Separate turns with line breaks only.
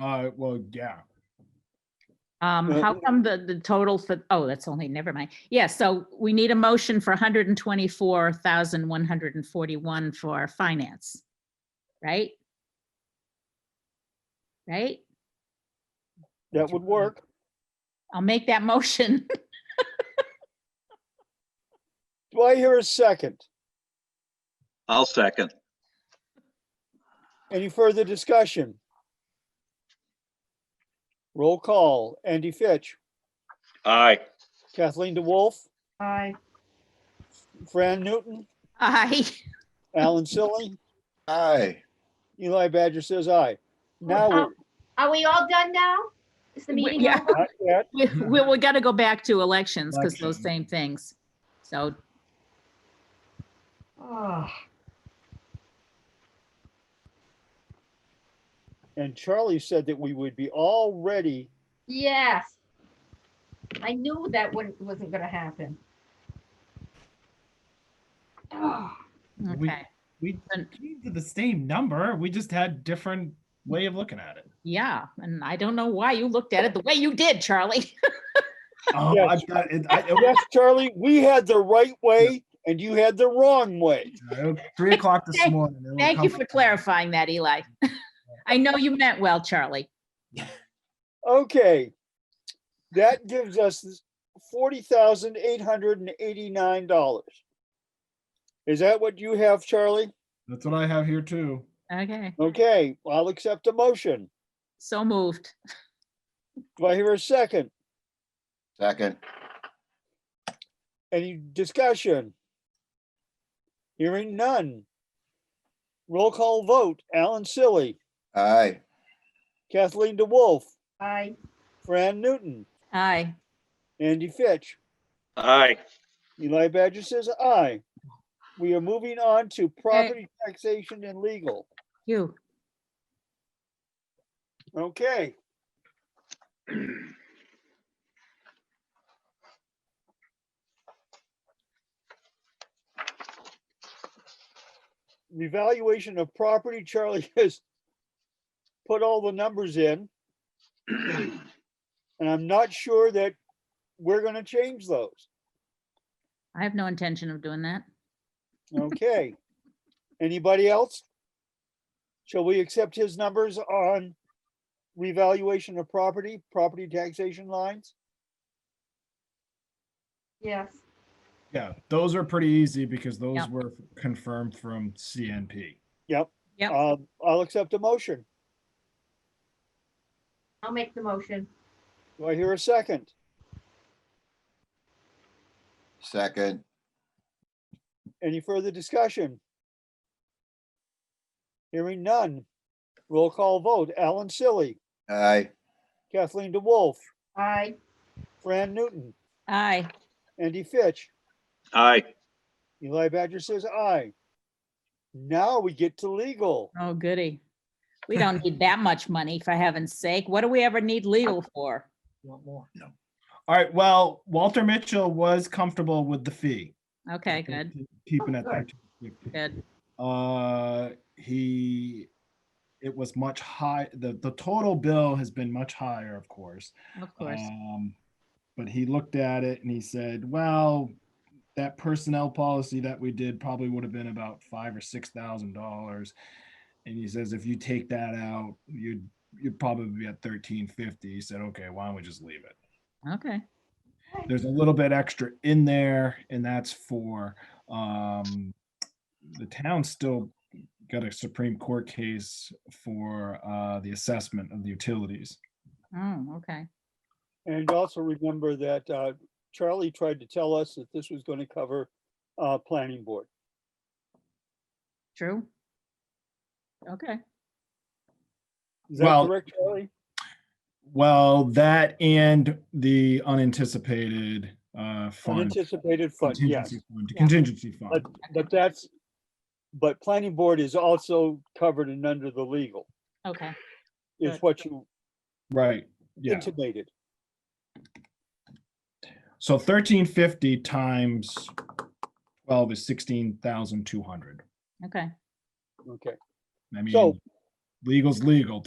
Uh, well, yeah.
Um,
Well-
how come the, the total for, oh, that's only, never mind. Yeah, so we need a motion for hundred and twenty-four thousand, one hundred and forty-one for finance. Right? Right?
That would work.
I'll make that motion.
Do I hear a second?
I'll second.
Any further discussion? Roll call. Andy Fitch,
Aye.
Kathleen DeWolf,
Aye.
Fran Newton,
Aye.
Alan Silly,
Aye.
Eli Badger says aye. Now,
Uh,
we're-
Are we all done now? Is the
We-
meeting
yeah.
over?
not yet.
We, we we gotta go back to elections because those
Election.
same things. So,
Oh,
and Charlie said that we would be all ready.
Yes. I knew that wouldn't, wasn't gonna happen. Oh,
We-
okay,
We
And-
came to the same number. We just had different way of looking at it.
yeah, and I don't know why you looked at it the way you did, Charlie.
Oh,
Yes.
I've got it. I,
Yes, Charlie, we had the right way and you had the wrong way.
it- three o'clock this
Thank-
morning. it'll
Thank you
come-
for clarifying that, Eli. I know you meant well, Charlie.
Okay. That gives us forty thousand eight hundred and eighty-nine dollars. Is that what you have, Charlie?
That's what I have here too.
Okay,
Okay, I'll accept a motion.
so moved.
Do I hear a second?
Second.
Any discussion? Hearing none. Roll call vote. Alan Silly,
Aye.
Kathleen DeWolf,
I,
Fran Newton,
Aye.
Andy Fitch.
Aye.
Eli Badger says aye. We are moving on to property taxation and legal.
You.
Okay. The Revaluation of property, Charlie has put all the numbers in. And I'm not sure that we're gonna change those.
I have no intention of doing that.
Okay. Anybody else? Shall we accept his numbers on revaluation of property, property taxation lines?
yes.
Yeah, those are pretty easy because those
Yeah.
were confirmed from CNP.
Yep.
Yep.
Um, I'll accept a motion.
I'll make the motion.
Do I hear a second?
Second.
Any further discussion? Hearing none. Roll call vote. Alan Silly,
Aye.
Kathleen DeWolf,
I,
Fran Newton,
Aye.
Andy Fitch.
Aye.
Eli Badger says aye. Now we get to legal.
Oh, goody. We don't need that much money for heaven's sake. What do we ever need legal for?
Want more?
No.
All right, well, Walter Mitchell was comfortable with the fee.
Okay, good,
Keeping
Oh,
it there.
good.
Uh, he, it was much high, the, the total bill has been much higher, of course.
Of course.
Um, But he looked at it and he said, well, that personnel policy that we did probably would have been about five or six thousand dollars. And he says, if you take that out, you'd, you'd probably be at thirteen fifty. He said, okay, why don't we just leave it?
Okay.
There's a little bit extra in there and that's for, um, the town still got a Supreme Court case for, uh, the assessment of the utilities.
Oh, okay.
And also remember that uh, Charlie tried to tell us that this was going to cover uh, planning board.
True. Okay.
Is that
Well-
correct, Charlie?
Well, that and the unanticipated uh fund.
Unanticipated fund, yes.
contingency fund-
Yeah.
Contingency fund.
But, but that's, but planning board is also covered and under the legal,
Okay.
is
Good.
what you
Right, yeah.
intimated.
So thirteen fifty times twelve is sixteen thousand two hundred.
Okay.
Okay.
I
So-
mean, legal's legal.